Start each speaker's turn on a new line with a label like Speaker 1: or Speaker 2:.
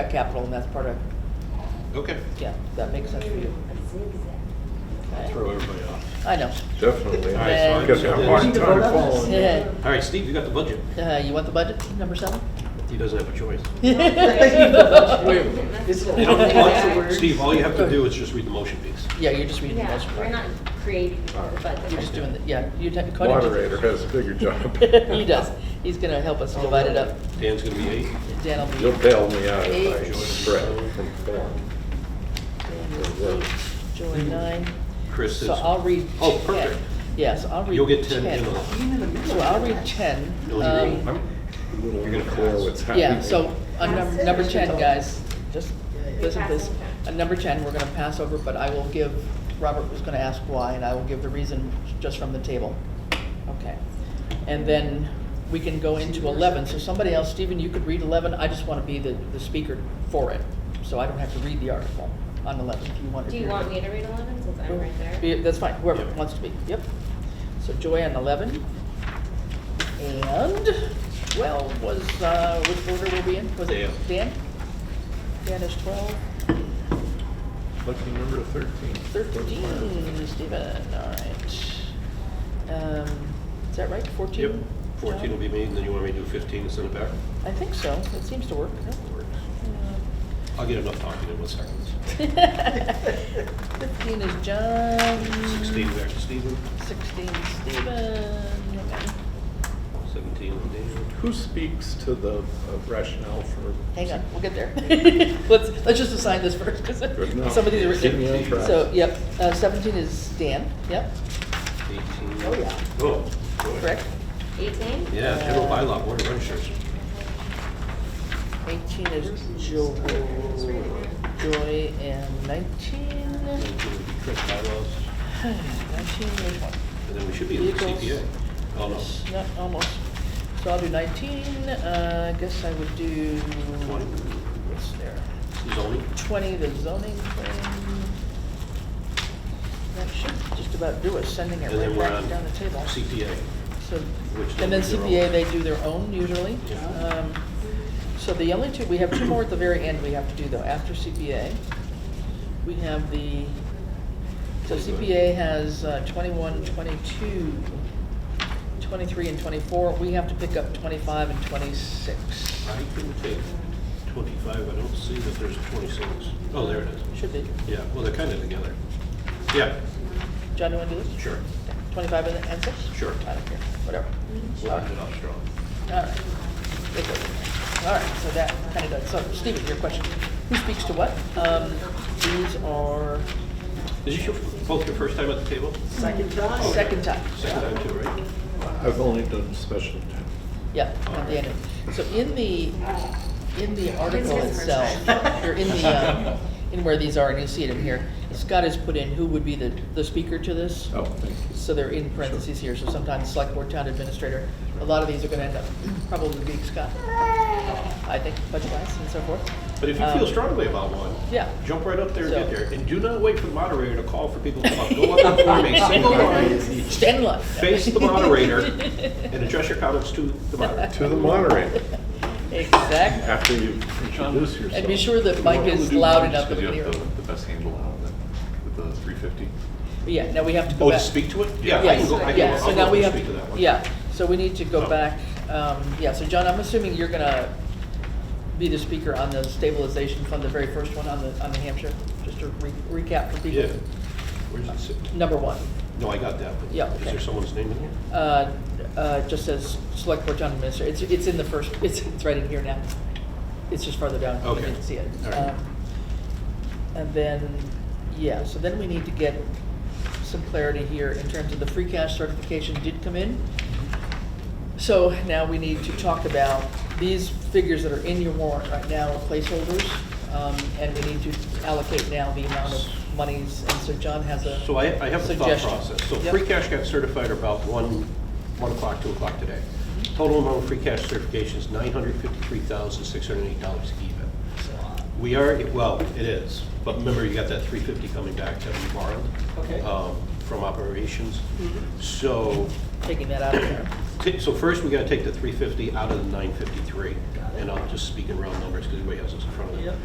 Speaker 1: capital, and that's part of,
Speaker 2: Okay.
Speaker 1: yeah, that makes sense for you.
Speaker 2: Throw everybody off.
Speaker 1: I know.
Speaker 3: Definitely.
Speaker 2: All right,
Speaker 3: Because
Speaker 2: so
Speaker 3: I'm
Speaker 2: I-
Speaker 3: hard time following.
Speaker 1: Yeah.
Speaker 2: All right, Steve, you got the budget.
Speaker 1: Uh, you want the budget, number seven?
Speaker 2: He doesn't have a choice. Steve, all you have to do is just read the motion piece.
Speaker 1: Yeah, you're just reading the budget.
Speaker 4: Yeah, we're not creating the budget.
Speaker 1: You're just doing, the yeah, you. te- Conan just-
Speaker 3: Moderator has a bigger job.
Speaker 1: He does. He's gonna help us divide it up.
Speaker 2: Dan's gonna be eight.
Speaker 1: Dan will be.
Speaker 3: You'll bail me out if I spread from form.
Speaker 1: Joy nine.
Speaker 2: Chris is,
Speaker 1: So I'll read.
Speaker 2: Oh, perfect.
Speaker 1: 10. Yeah, so I'll read. Um,
Speaker 2: you'll get ten in all.
Speaker 1: So I'll read ten.
Speaker 2: You'll
Speaker 1: um,
Speaker 2: read-
Speaker 3: You're gonna clear what's happening.
Speaker 1: Yeah, so on num- number ten, guys, just listen please. On number ten, we're gonna pass over, but I will give, Robert was gonna ask why, and I will give the reason just from the table. Okay. And then we can go into eleven, so somebody else, Stephen, you could read eleven, I just wanna be the, the speaker for it, so I don't have to read the article on eleven, if you want.
Speaker 4: Do you want me to read eleven since I'm right there?
Speaker 1: Yeah, That's fine, whoever
Speaker 2: Yeah.
Speaker 1: wants to be, yep. So Joy on eleven. And twelve was, uh, which order were we in? Was it Dan? Dan is twelve,
Speaker 3: Lucky number thirteen.
Speaker 1: thirteen, Stephen, all right. Um, is that right, fourteen?
Speaker 2: Yep, fourteen will be me, and then you want me to do fifteen and send it back?
Speaker 1: I think so, it seems to work.
Speaker 2: I'll get enough talking in one second.
Speaker 1: Fifteen is John.
Speaker 2: Sixteen back to Steven,
Speaker 1: Sixteen, Stephen, hang on.
Speaker 2: seventeen on Dan.
Speaker 3: Who speaks to the uh, rationale for?
Speaker 1: Hang on, we'll get there. Let's, let's just assign this first, because
Speaker 3: Good enough.
Speaker 1: some of these are
Speaker 3: Keep me on
Speaker 1: written.
Speaker 3: track.
Speaker 1: So, yep, uh, seventeen is Dan, yep,
Speaker 2: Eighteen.
Speaker 1: Oh, yeah.
Speaker 2: Oh, boy.
Speaker 1: correct.
Speaker 4: Eighteen?
Speaker 2: Yeah, general bylaw, board of registers.
Speaker 1: Eighteen is Jo- Joy, and nineteen,
Speaker 2: Nineteen would be Chris bylaws,
Speaker 1: nineteen, there's one.
Speaker 2: and then we should be in the
Speaker 1: Vehicles.
Speaker 2: CPA. Oh, no,
Speaker 1: Not, almost. So I'll do nineteen, uh, I guess I would do,
Speaker 2: Twenty.
Speaker 1: what's there?
Speaker 2: zoning,
Speaker 1: Twenty, the zoning thing. That should just about do it, sending it
Speaker 2: and then
Speaker 1: right
Speaker 2: we're
Speaker 1: back
Speaker 2: on
Speaker 1: down the table.
Speaker 2: CPA.
Speaker 1: So,
Speaker 2: Which
Speaker 1: and then
Speaker 2: they'll do
Speaker 1: CPA,
Speaker 2: their
Speaker 1: they do their own usually.
Speaker 2: Yeah.
Speaker 1: Um, So the only two, we have two more at the very end we have to do though, after CPA. We have the, so CPA has uh, 21, 22, 23, and 24. We have to pick up 25 and 26.
Speaker 2: I can take twenty-five, I don't see that there's twenty-six. Oh, there it is.
Speaker 1: Should be.
Speaker 2: Yeah, well, they're kind of together. Yeah,
Speaker 1: John, you want to do this?
Speaker 2: sure.
Speaker 1: 25 and and 6?
Speaker 2: Sure.
Speaker 1: I don't care, whatever.
Speaker 2: Locked it off strong.
Speaker 1: All right. It goes in there. All right, so that kind of does, so Stephen, your question, who speaks to what? Um, These are
Speaker 2: Is this your, both your first time at the table?
Speaker 5: Second time.
Speaker 1: Uh, second time.
Speaker 2: Second time too, right?
Speaker 3: I've only done special town.
Speaker 1: Yeah, at the end. of- So in the, in the article
Speaker 4: It's his first
Speaker 1: itself, or in the, um, in where these are, and you see it in here, Scott has put in who would be the, the speaker to this.
Speaker 3: Oh, thank you.
Speaker 1: So they're in parentheses here, so sometimes select board town administrator, a lot of these are gonna end up probably being Scott. I think, budget wise and so forth.
Speaker 2: But if you
Speaker 1: Um,
Speaker 2: feel strongly about one,
Speaker 1: Yeah.
Speaker 2: jump right up there and
Speaker 1: So-
Speaker 2: get there. And do not wait for the moderator to call for people to come up. Go up and form a single line,
Speaker 1: Stand in line.
Speaker 2: face the moderator, and address your comments to the moderator.
Speaker 3: To the moderator,
Speaker 1: Exactly.
Speaker 3: after you introduce yourself.
Speaker 1: And be sure that mic is loud enough that we can hear. it.
Speaker 6: The best handle out of it, with the three fifty.
Speaker 1: But Yeah, now we have to go
Speaker 2: Oh, to
Speaker 1: back.
Speaker 2: speak to it? Yeah, I can
Speaker 1: Yes,
Speaker 2: go, I
Speaker 1: yeah,
Speaker 2: can,
Speaker 1: so
Speaker 2: I'll
Speaker 1: now
Speaker 2: go
Speaker 1: we
Speaker 2: and
Speaker 1: have,
Speaker 2: speak to that one.
Speaker 1: yeah, so we need to go
Speaker 2: Oh.
Speaker 1: back, um, yeah, so John, I'm assuming you're gonna be the speaker on the stabilization fund, the very first one on the, on the Hampshire, just to re- recap for people.
Speaker 2: Yeah. Where's it sit?
Speaker 1: Number one,
Speaker 2: No, I got that. but
Speaker 1: Yeah,
Speaker 2: Is
Speaker 1: okay.
Speaker 2: there someone's name in here?
Speaker 1: uh, uh, just says select board town administrator, it's, it's in the first, it's, it's right in here now. It's just farther down, you
Speaker 2: Okay.
Speaker 1: didn't see it.
Speaker 2: All right.
Speaker 1: Um, And then, yeah, so then we need to get some clarity here in terms of the free cash certification did come in. So now we need to talk about these figures that are in your warrant right now are placeholders. Um, and we need to allocate now the amount of monies, and so John has a
Speaker 2: So I, I have a thought
Speaker 1: suggestion.
Speaker 2: process. So
Speaker 1: Yep.
Speaker 2: free cash got certified about one, one o'clock, two o'clock today. Total amount of free cash certification is nine hundred fifty-three thousand, six hundred and eight dollars even. We are, well, it is, but remember, you got that three fifty coming back that we borrowed.
Speaker 5: Okay.
Speaker 1: Mm-hmm.
Speaker 2: um, From operations. So
Speaker 1: Taking that out of there.
Speaker 2: t- so first, we gotta take the three fifty out of the nine fifty-three, and I'll just speak in round numbers, because everybody has this in front of them.